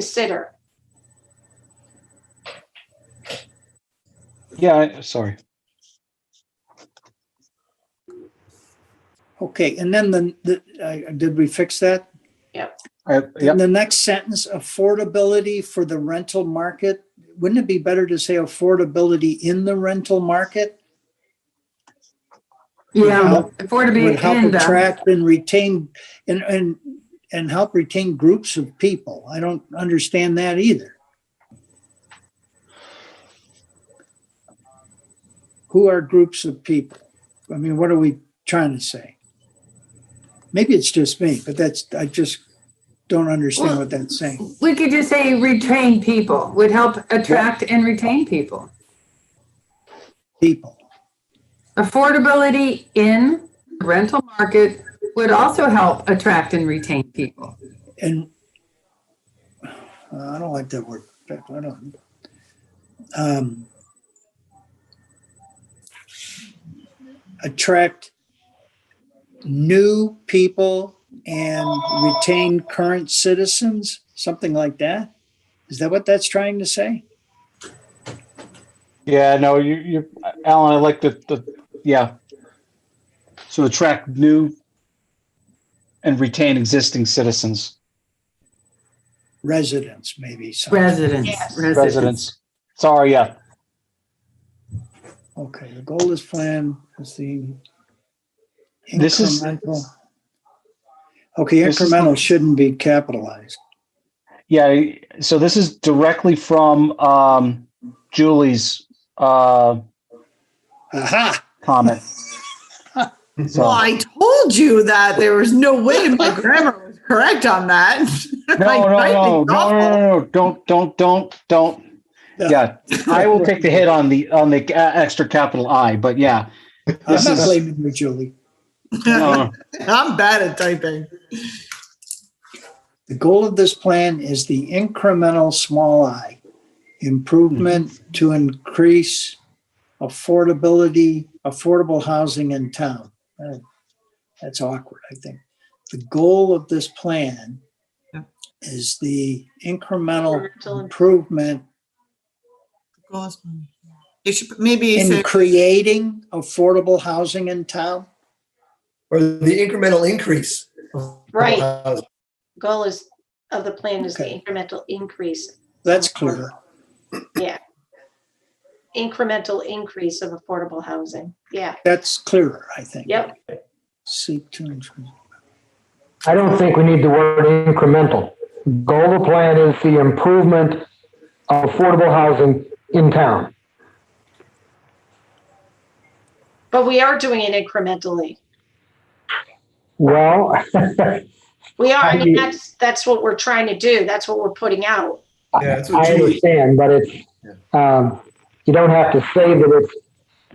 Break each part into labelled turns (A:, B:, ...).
A: consider.
B: Yeah, I- sorry.
C: Okay, and then the, the, I- did we fix that?
B: I,
C: In
B: yep,
C: the next sentence, affordability for the rental market, wouldn't it be better to say affordability in the rental market?
D: Yeah,
C: help- Would
D: affordability
C: help
D: and uh, the,
C: attract and retain and, and, and help retain groups of people. I don't understand that either. Who are groups of people? I mean, what are we trying to say? Maybe it's just me, but that's, I just don't understand what that's saying.
D: we could just say retain people, would help attract and retain people.
C: people.
D: Affordability in the rental market would also help attract and retain people.
C: And uh, I don't like that word. but I don't. Um, attract new people and retain current citizens, something like that. Is that what that's trying to say?
B: yeah, no, you, you, Alan, I like the, the, yeah. So attract new and retain existing citizens,
C: Residents, maybe. something.
D: Residents,
A: Yes.
D: residents.
B: residents. Sorry, yeah,
C: Okay, the goal is plan is the.
B: This is-
C: incremental- Okay,
B: This is-
C: incremental shouldn't be capitalized.
B: yeah. So this is directly from, um, Julie's, uh,
C: Aha!
B: comment.
E: Well,
B: So,
E: I told you that there was no way my grammar was correct on that.
B: no, no, no, no, no, no, no, don't, don't, don't, don't. Yeah, I will take the hit on the, on the uh, extra capital I, but yeah.
C: I'm
B: This
C: not
B: is-
C: blaming you, Julie.
B: no, no.
E: I'm bad at typing.
C: The goal of this plan is the incremental small i improvement to increase affordability, affordable housing in town. Uh, That's awkward, I think. The goal of this plan
E: Yeah.
C: is the incremental
A: Incremental
C: improvement
E: You should maybe
C: in
E: say
C: creating affordable housing in town?
F: or the incremental increase. of
A: Right.
F: housing.
A: Goal is, of the plan is the
C: Okay.
A: incremental increase,
C: That's clear.
A: incremental increase of affordable housing. Yeah,
C: That's clearer, I think.
A: yep.
C: Seek to improve.
G: I don't think we need the word incremental. Goal of the plan is the improvement of affordable housing in town.
A: But we are doing it incrementally.
G: Well,
A: We are, I mean,
G: I-
A: that's, that's what we're trying to do. That's what we're putting out.
F: Yeah, that's what
G: I
F: Julie.
G: understand, but it's, um, you don't have to say that it's,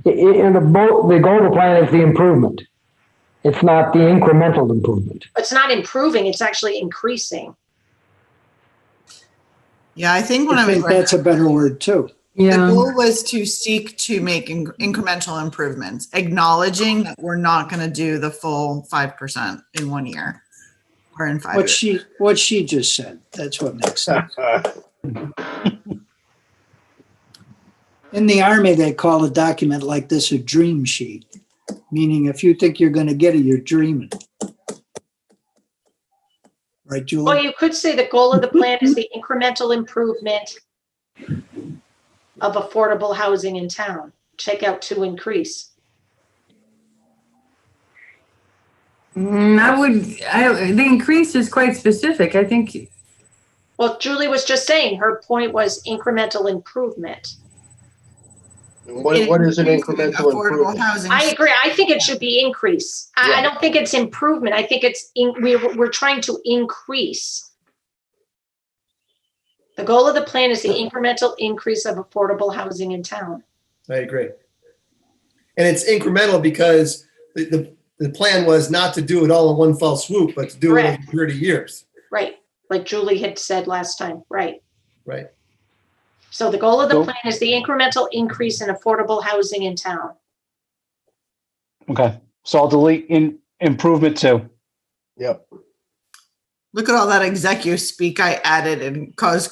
G: i- i- in the bo- the goal of the plan is the improvement. It's not the incremental improvement.
A: It's not improving, it's actually increasing.
E: yeah, I think when
C: I
E: I
C: think
E: was
C: that's a better word too.
E: the
D: Yeah,
E: goal was to seek to make in- incremental improvements, acknowledging that we're not going to do the full 5% in one year or in five
C: What
E: years.
C: she, what she just said, that's what makes sense. In the army, they call a document like this a dream sheet, meaning if you think you're gonna get it, you're dreaming. Right,
A: Well,
C: Julie?
A: you could say the goal of the plan is the incremental improvement of affordable housing in town. Check out to increase.
D: Mm, I would, I, the increase is quite specific. I think
A: Well, Julie was just saying, her point was incremental improvement.
H: What, what is an incremental
E: Affordable
H: improvement?
E: housing.
A: I agree. I think it should be increase. I, I don't think it's improvement. I think it's, in- we're, we're trying to increase. The goal of the plan is the incremental increase of affordable housing in town.
F: I agree. And it's incremental because the, the, the plan was not to do it all in one fell swoop, but to do it over
A: Correct.
F: 30 years.
A: Right, like Julie had said last time, right.
F: Right.
A: So the goal of the
B: Nope.
A: plan is the incremental increase in affordable housing in town.
B: Okay, so I'll delete in improvement too.
H: Yep.
E: Look at all that executive speak I added and caused